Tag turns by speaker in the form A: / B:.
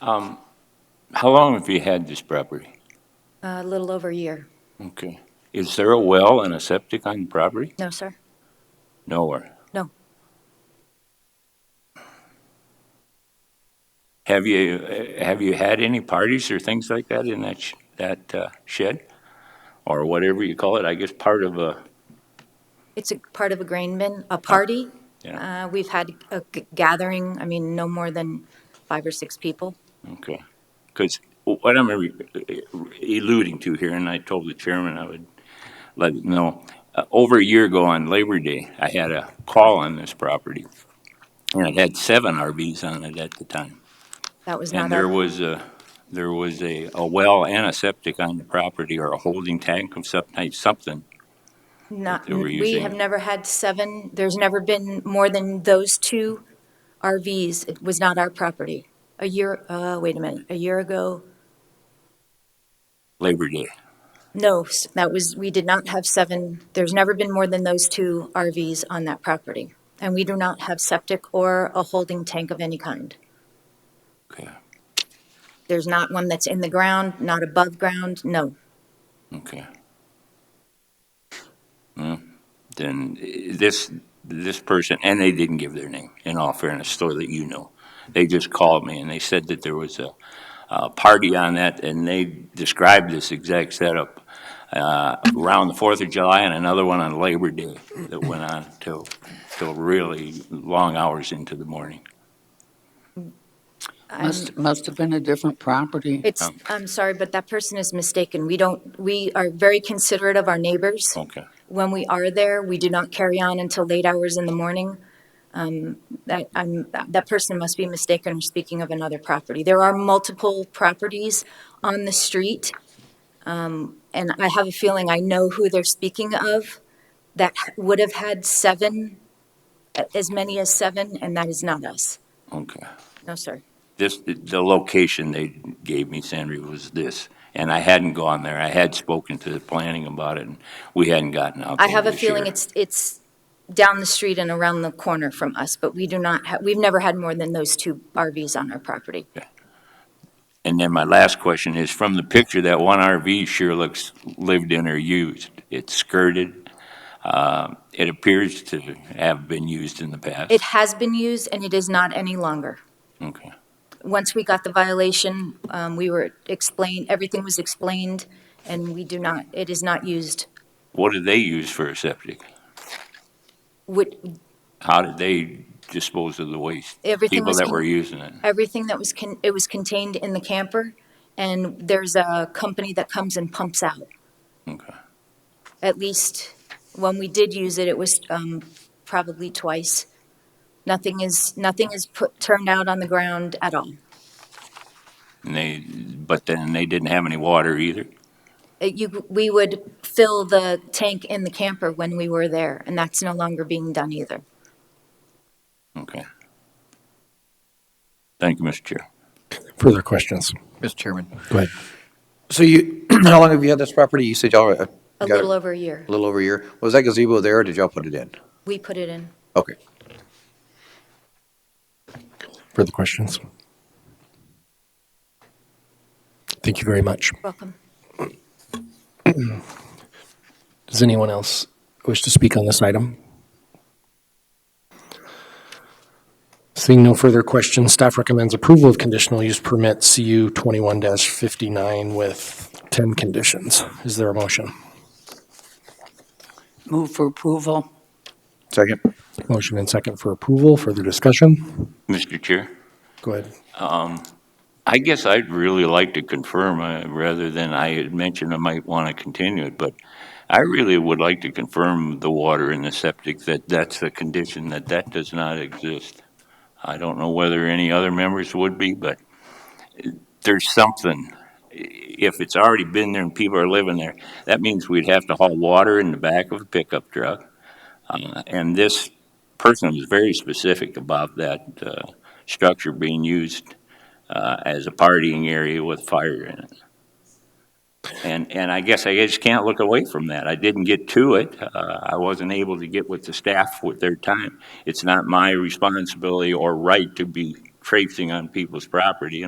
A: Um, How long have you had this property?
B: A little over a year.
A: Okay. Is there a well and a septic on the property?
B: No, sir.
A: Nowhere.
B: No.
A: Have you, uh, have you had any parties or things like that in that, sh- that uh, shed? Or whatever you call it, I guess part of a,
B: It's a part of a grain bin, a party.
A: yeah,
B: Uh, We've had a g- gathering, I mean, no more than five or six people.
A: okay. Because what I'm re- alluding to here, and I told the chairman I would let him know, uh, over a year ago on Labor Day, I had a call on this property. And it had seven RVs on it at the time.
B: That was not
A: And there
B: our,
A: was a, there was a, a well and a septic on the property or a holding tank of some type, something.
B: not,
A: they were
B: we
A: using.
B: have never had seven, there's never been more than those two RVs. It was not our property. A year, uh, wait a minute, a year ago,
A: Labor Day.
B: no, s- that was, we did not have seven, there's never been more than those two RVs on that property. And we do not have septic or a holding tank of any kind.
A: Okay,
B: There's not one that's in the ground, not above ground, no.
A: okay. Well, Then eh, this, this person, and they didn't give their name, in all fairness, so that you know. They just called me and they said that there was a, a party on that and they described this exact setup uh, around the Fourth of July and another one on Labor Day that went on till, till really long hours into the morning.
C: Must, must have been a different property.
B: It's, I'm sorry, but that person is mistaken. We don't, we are very considerate of our neighbors.
A: Okay.
B: When we are there, we do not carry on until late hours in the morning. Um, That, I'm, that person must be mistaken or speaking of another property. There are multiple properties on the street. um, And I have a feeling I know who they're speaking of that would have had seven, a- as many as seven, and that is not us.
A: Okay.
B: No, sir.
A: This, the location they gave me, Sandra, was this, and I hadn't gone there. I had spoken to the planning about it, and we hadn't gotten out
B: I
A: there
B: have a
A: this year.
B: feeling it's, it's down the street and around the corner from us, but we do not, ha- we've never had more than those two RVs on our property.
A: And then my last question is, from the picture, that one RV sure looks lived in or used. It's skirted. Uh, It appears to have been used in the past.
B: It has been used and it is not any longer.
A: Okay,
B: Once we got the violation, um, we were explained, everything was explained, and we do not, it is not used.
A: what did they use for a septic?
B: Would,
A: How did they dispose of the waste?
B: Everything was
A: People that
B: in-
A: were using it?
B: everything that was, con- it was contained in the camper, and there's a company that comes and pumps out.
A: Okay,
B: at least when we did use it, it was um, probably twice. Nothing is, nothing is put, turned out on the ground at all.
A: and they, but then they didn't have any water either?
B: It- you- we would fill the tank in the camper when we were there, and that's no longer being done either.
A: Okay. Thank you, Mr. Chair.
D: Further questions?
E: Mr. Chairman.
D: Go ahead.
E: So you, how long have you had this property? You said y'all uh,
B: A
E: got it
B: little over a year,
E: a little over a year. Was that gazebo there or did y'all put it in?
B: we put it in.
E: Okay.
D: Further questions? Thank you very much.
B: Welcome.
D: Does anyone else wish to speak on this item? Seeing no further questions, staff recommends approval of conditional use permit CU 21-59 with 10 conditions. Is there a motion?
C: Move for approval.
E: Second.
D: Motion and second for approval. Further discussion?
A: Mr. Chair?
D: Go ahead.
A: I guess I'd really like to confirm, uh, rather than I had mentioned I might want to continue it, but I really would like to confirm the water in the septic, that that's the condition, that that does not exist. I don't know whether any other members would be, but there's something. If it's already been there and people are living there, that means we'd have to haul water in the back of a pickup truck. Uh, And this person was very specific about that uh, structure being used uh, as a partying area with fire in it. And, and I guess I just can't look away from that. I didn't get to it. Uh, I wasn't able to get with the staff with their time. It's not my responsibility or right to be traipsing on people's property